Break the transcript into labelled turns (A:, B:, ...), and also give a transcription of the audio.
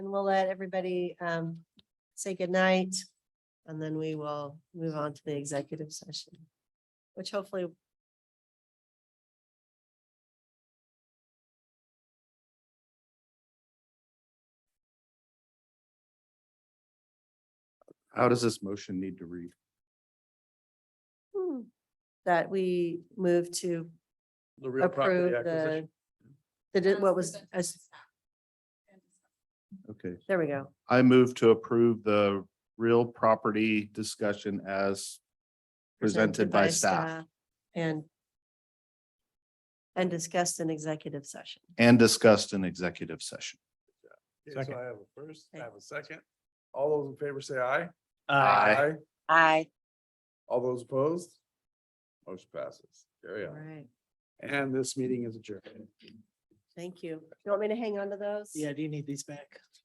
A: and we'll let everybody um say goodnight. And then we will move on to the executive session, which hopefully.
B: How does this motion need to read?
A: hmm, That we move to
C: The real
A: approve
C: property
A: the.
C: acquisition.
A: The, di- what was, as-
B: Okay,
A: there we go.
B: I move to approve the real property discussion as presented by staff
A: And. And discussed in executive session.
B: and discussed in executive session.
C: Okay, So
D: Second.
C: I have a first, I
A: Okay.
C: have a second. All those in favor say aye.
B: Aye.
A: Aye.
C: All those opposed? Motion passes. Carry
A: All
C: on.
A: right,
C: And this meeting is adjourned.
A: thank you. You want me to hang on to those?
D: Yeah, do you need these back?